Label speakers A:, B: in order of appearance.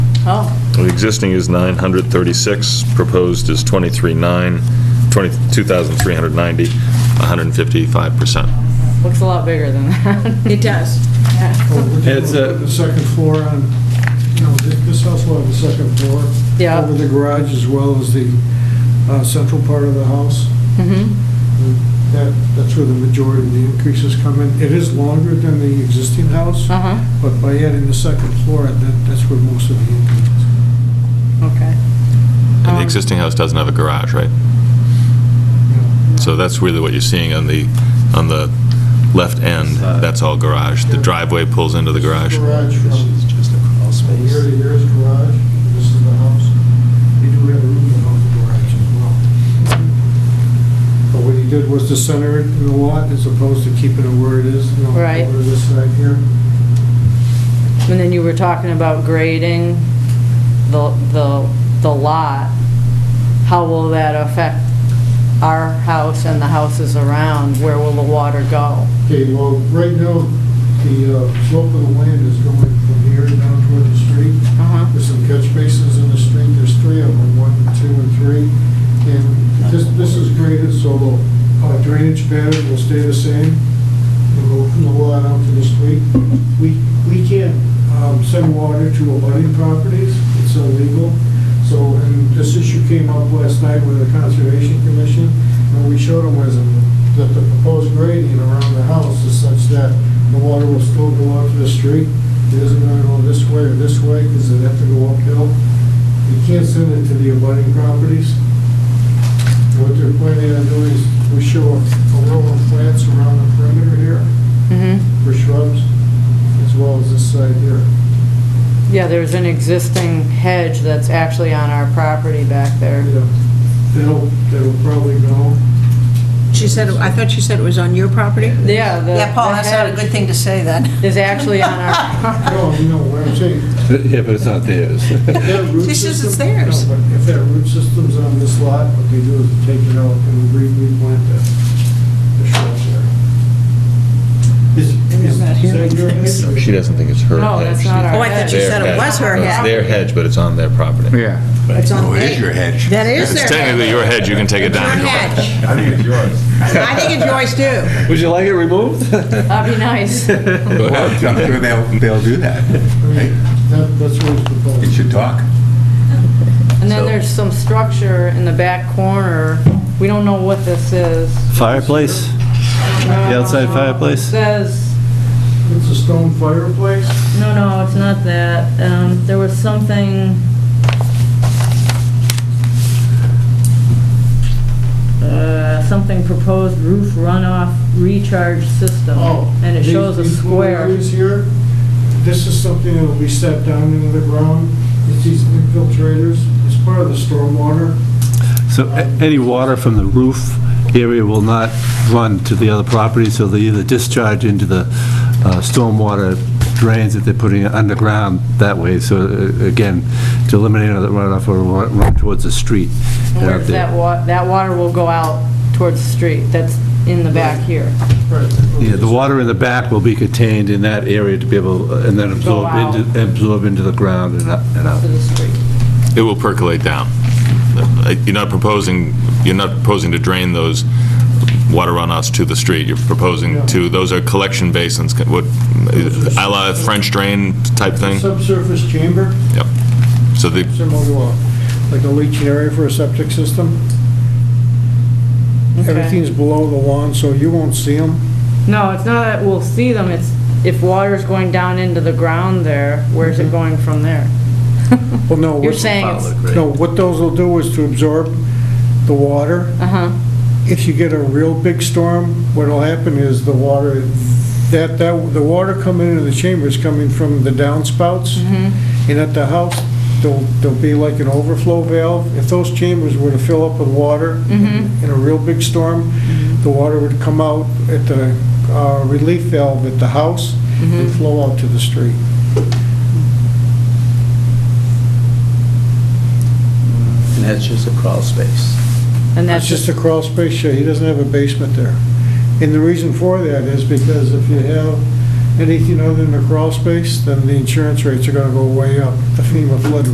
A: Oh,
B: existing is 936, proposed is 23,9, 20 2,390, 155%.
A: Looks a lot bigger than that.
C: It does.
D: Well, would you
E: It's
D: put
E: a-
D: The second floor on, you know, th- this house will have a second floor.
A: Yeah.
D: Over the garage as well as the uh, central part of the house.
A: Mhm.
D: And That, that's where the majority of the increases come in. It is longer than the existing house,
A: Uh-huh,
D: but by adding the second floor, that, that's where most of the increase is.
A: okay.
B: And
A: Um,
B: the existing house doesn't have a garage, right?
D: Yeah.
B: So that's really what you're seeing on the, on the left end,
E: Side.
B: that's all garage. The driveway pulls into the garage.
D: Garage from
E: This is just a crawl
D: from
E: space.
D: here to here is garage, and this is the house. They do have a room above the garage as well. But what he did was to center it in the lot as opposed to keeping it where it is, you know,
A: Right.
D: over this side here.
A: And then you were talking about grading the, the, the lot. How will that affect our house and the houses around? Where will the water go?
D: Okay, well, right now, the uh, slope of the land is going from here down toward the street.
A: Uh-huh.
D: There's some catch basins in the street, there's three of them, one, two, and three. And this, this is graded, so the uh, drainage pattern will stay the same. It'll go from the lot out to the street. We, we can't um, send water to abutting properties, it's illegal. So, and this issue came up last night with the Conservation Commission, and we showed them was that the proposed grading around the house is such that the water will still go out to the street. It isn't gonna go this way or this way, because it'd have to go uphill. You can't send it to the abutting properties. What they're planning on doing is, we show a a row of plants around the perimeter here
A: Mm-hmm.
D: for shrubs, as well as this side here.
A: Yeah, there's an existing hedge that's actually on our property back there.
D: Yeah. uh, They'll, they'll probably go.
C: She said, I thought she said it was on your property?
A: Yeah, the.
F: Yeah, Paul,
A: the
F: that's not a
A: hedge
F: good thing to say then.
A: Is actually on our,
D: No, you know what I'm saying.
E: Yeah, but it's not theirs.
D: If that root
C: She says it's
D: system-
C: theirs.
D: No, but If that root system's on this lot, what they do is take it out and re- replant the the shrubs there. Is-
C: Maybe I'm
D: is-
C: not
D: is
C: hearing
D: that your
C: things.
D: hedge?
B: She doesn't think it's her hedge.
A: No, that's not our
C: Oh, I thought you
B: Their
C: said
B: hedge.
C: it was her
B: No, It's
C: head.
B: their hedge, but it's on their property.
E: Yeah.
C: It's on
G: No, Oh, it is
C: the-
G: your hedge.
C: That is
B: It's
C: their
B: technically
C: hedge.
B: your hedge, you can take it down.
C: Your hedge.
G: I think it's yours.
C: I think it's yours too.
E: Would you like it removed?
A: that'd be nice.
G: Well, I'm sure they'll, they'll do that. Hey,
D: That- That's what it's proposed.
G: You should talk.
A: And then
G: So-
A: there's some structure in the back corner. We don't know what this is.
E: Fireplace? The outside
A: It
E: fireplace?
A: Says,
D: It's a stone fireplace.
A: no, no, it's not that. Um, there was something. Uh, something proposed roof runoff recharge system.
D: Oh,
A: And it
D: these-
A: shows a
D: these little
A: square.
D: areas here, this is something that we set down into the ground. It's these infiltrators. It's part of the stormwater.
H: So a- any water from the roof area will not run to the other property, so they either discharge into the uh, stormwater drains that they're putting underground that way, so uh, again, to eliminate another runoff or wa- run towards the street.
A: And Where's that wa, that water will go out towards the street. That's in the back here.
H: Yeah, the water in the back will be contained in that area to be able, uh, and then absorb
A: out.
H: into, absorb into the ground and up- and out.
A: To the street.
B: It will percolate down. Uh, You're not proposing, you're not proposing to drain those water runoffs to the street. You're proposing to, those are collection basins, what, a la French drain type
D: It's a
B: thing?
D: Subsurface chamber,
B: Yep. So the,
D: similar to a, like a leaching area for a septic system.
A: Okay.
D: Everything's below the lawn, so you won't see them.
A: No, it's not that we'll see them, it's if water's going down into the ground there, where's it going from there?
D: Well, no.
A: You're
D: what-
A: saying it's,
D: No, what those will do is to absorb the water.
A: uh-huh,
D: If you get a real big storm, what'll happen is the water, that, that, the water coming into the chamber is coming from the downspouts. And at the house, there'll, there'll be like an overflow valve. If those chambers were to fill up with water in a real big storm, the water would come out at the uh, relief valve at the house and flow out to the street.
E: And that's just a crawl space.
A: and
D: It's
A: that's
D: just
A: just,
D: a crawl space, yeah, he doesn't have a basement there. And the reason for that is because if you have anything other than a crawl space, then the insurance rates are gonna go way up, the FEMA flood